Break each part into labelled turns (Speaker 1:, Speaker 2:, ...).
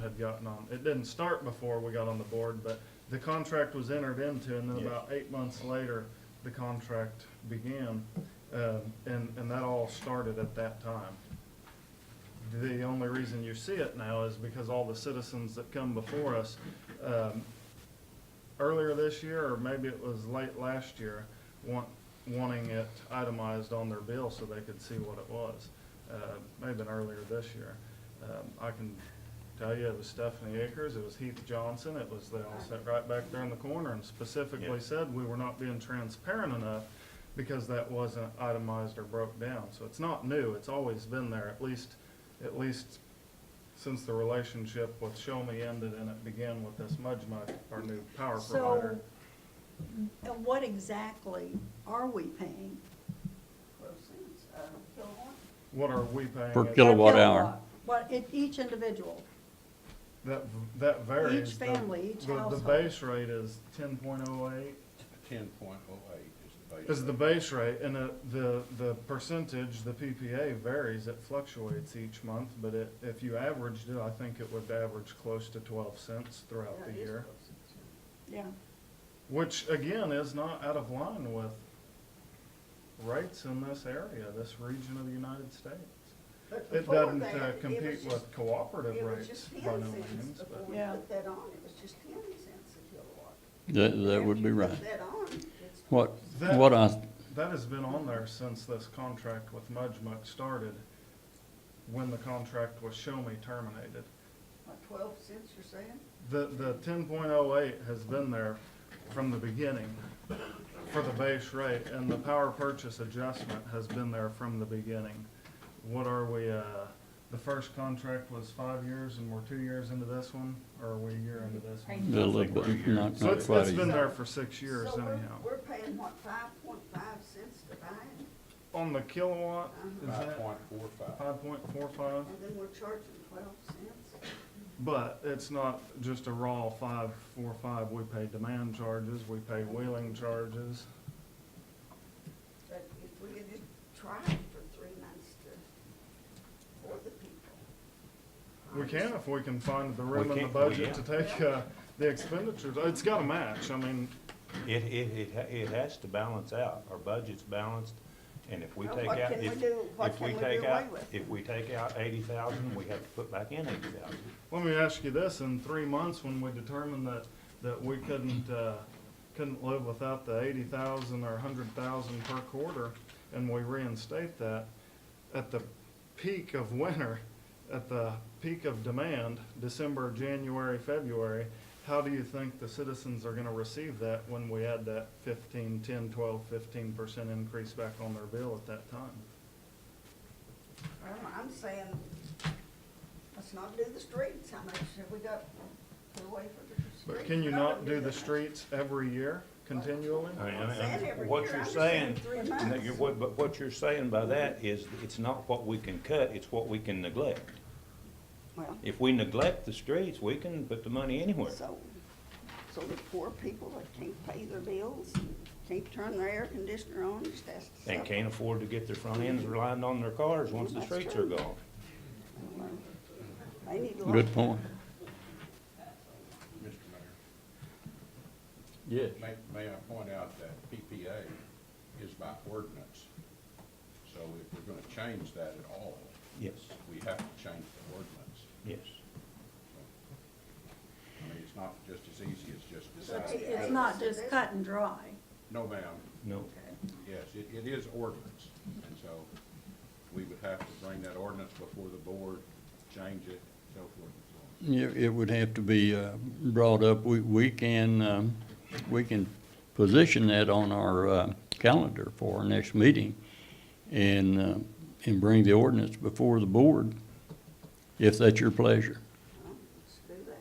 Speaker 1: had gotten on. It didn't start before we got on the board, but the contract was entered into, and then
Speaker 2: Yes.
Speaker 1: about eight months later, the contract began. Um, and, and that all started at that time. The only reason you see it now is because all the citizens that come before us, um, earlier this year, or maybe it was late last year, want, wanting it itemized on their bill so they could see what it was. Uh, maybe been earlier this year. Um, I can tell you, Oh, it was Stephanie Akers, it was Heath Johnson, it was, they all sat right back there in the corner and
Speaker 2: Yeah.
Speaker 1: specifically said we were not being transparent enough because that wasn't itemized or broke down. So it's not new, it's always been there, at least, at least since the relationship with Show Me ended and it began with this Mudge Mudge, our new power provider.
Speaker 3: So, uh, what exactly are we paying?
Speaker 4: proceeds, uh, kilowatt.
Speaker 1: What are we paying?
Speaker 5: Per
Speaker 1: it?
Speaker 5: kilo- Kilowatt
Speaker 3: Per
Speaker 5: hour.
Speaker 3: kilowatt. What,
Speaker 4: e-,
Speaker 3: it, each individual,
Speaker 1: That, v- that varies.
Speaker 3: Each
Speaker 1: The-
Speaker 3: family, each
Speaker 1: the-
Speaker 3: household.
Speaker 1: The base rate is ten point oh eight,
Speaker 2: Ten point oh eight is the base.
Speaker 1: is the
Speaker 2: rate.
Speaker 1: base rate, and the, the, the percentage, the PPA varies, it fluctuates each month, but it, if you averaged it, I think it would average close to twelve cents throughout the
Speaker 4: Yeah, it is
Speaker 1: year.
Speaker 4: proceeds, yeah.
Speaker 3: yeah.
Speaker 1: Which again is not out of line with rates in this area, this region of the United States.
Speaker 4: But
Speaker 1: It
Speaker 4: before
Speaker 1: doesn't
Speaker 4: that,
Speaker 1: uh,
Speaker 4: it was
Speaker 1: compete
Speaker 4: just-
Speaker 1: with cooperative
Speaker 4: It was
Speaker 1: rates
Speaker 4: just
Speaker 1: by
Speaker 4: ten
Speaker 1: no
Speaker 4: cents
Speaker 1: means,
Speaker 4: before
Speaker 1: but
Speaker 4: we
Speaker 3: Yeah.
Speaker 4: put that on, it was just ten cents a kilowatt.
Speaker 5: That, that would
Speaker 4: After
Speaker 5: be
Speaker 4: you
Speaker 5: right.
Speaker 4: Put that on, it's.
Speaker 5: What,
Speaker 1: That-
Speaker 5: what I,
Speaker 1: that has been on there since this contract with Mudge Muck started, when the contract with Show Me terminated.
Speaker 4: What, twelve cents you're saying?
Speaker 1: The, the ten point oh eight has been there from the beginning for the base rate, and the power purchase adjustment has been there from the beginning. What are we, uh, the first contract was five years and we're two years into this one, or are we a year into this
Speaker 5: a
Speaker 1: one?
Speaker 5: little bit, not,
Speaker 1: So
Speaker 5: not
Speaker 1: it's,
Speaker 5: quite
Speaker 1: it's
Speaker 5: a
Speaker 1: been
Speaker 5: year.
Speaker 1: there for six years
Speaker 4: So we're-
Speaker 1: anyhow.
Speaker 4: We're paying what, five point five cents to buy it,
Speaker 1: On the kilowatt, is
Speaker 2: Five
Speaker 1: that
Speaker 2: point four five.
Speaker 1: five point four five?
Speaker 4: and then we're charging twelve cents?
Speaker 1: But it's not just a raw five, four, five, we pay demand charges, we pay wheeling charges.
Speaker 4: But if we could just try it for three months to, for the people.
Speaker 1: We can if we can find the
Speaker 2: We
Speaker 1: room in the
Speaker 2: can't-
Speaker 1: budget to
Speaker 2: yeah.
Speaker 1: take, uh, the expenditures, it's gotta match, I mean,
Speaker 6: It, it, it, ha- it has to balance out, our budget's balanced, and if we
Speaker 4: Well,
Speaker 6: take
Speaker 4: what
Speaker 6: out,
Speaker 4: can we
Speaker 6: if,
Speaker 4: do- what
Speaker 6: if
Speaker 4: can
Speaker 6: we
Speaker 4: we
Speaker 6: take
Speaker 4: do away
Speaker 6: out,
Speaker 4: with?
Speaker 6: if we take out eighty thousand, we have to put back in eighty thousand.
Speaker 1: let me ask you this, in three months, when we determined that, that we couldn't, uh, couldn't live without the eighty thousand or a hundred thousand per quarter, and we reinstate that, at the peak of winter, at the peak of demand, December, January, February, how do you think the citizens are gonna receive that when we add that fifteen, ten, twelve, fifteen percent increase back on their bill at that time?
Speaker 4: I'm, I'm saying, let's not do the streets, how much have we got put away for the streets?
Speaker 1: But can you not do the streets every year continually?
Speaker 6: I mean,
Speaker 4: I'm saying every
Speaker 6: What
Speaker 4: year,
Speaker 6: you're
Speaker 4: I'm just
Speaker 6: saying,
Speaker 4: three
Speaker 6: and that
Speaker 4: months.
Speaker 6: you're- what, but what you're saying by that is, it's not what we can cut, it's what we can neglect.
Speaker 4: Well,
Speaker 6: If we neglect the streets, we can put the money anywhere.
Speaker 4: so, so the poor people that can't pay their bills, and can't turn their air conditioner on, just ask. to
Speaker 6: And
Speaker 4: suffer.
Speaker 6: can't afford to get their front ends reliant on their cars once the
Speaker 4: That's
Speaker 6: streets are
Speaker 4: true.
Speaker 6: gone.
Speaker 4: They need to.
Speaker 5: Good point.
Speaker 2: Mr.
Speaker 5: Yes.
Speaker 2: Mayor, may, may I point out that PPA is by ordinance. So if we're gonna change that at all,
Speaker 6: Yes,
Speaker 2: we have to change the ordinance.
Speaker 6: yes.
Speaker 2: I mean, it's not just as easy as just
Speaker 3: It's,
Speaker 2: deciding.
Speaker 3: it's not just cut and dry.
Speaker 2: No, ma'am,
Speaker 6: No,
Speaker 2: yes, it, it is ordinance, and so we would have to bring that ordinance before the board, change it, so forth and so on.
Speaker 5: It, it would have to be, uh, brought up. We, we can, um, we can position that on our, uh, calendar for our next meeting and, uh, and bring the ordinance before the board, if that's your pleasure.
Speaker 4: Let's do that.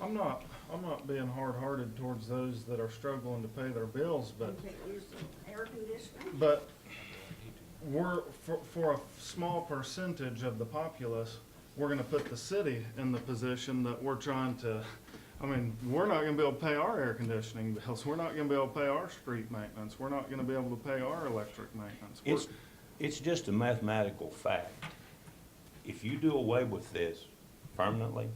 Speaker 1: I'm not, I'm not being hard-hearted towards those that are struggling to pay their bills, but,
Speaker 4: You can't use the air conditioner.
Speaker 1: but we're, for, for a small percentage of the populace, we're gonna put the city in the position that we're trying to, I mean, we're not gonna be able to pay our air conditioning bills, we're not gonna be able to pay our street maintenance, we're not gonna be able to pay our electric maintenance. We're-
Speaker 6: It's, it's just a mathematical fact. If you do away with this permanently,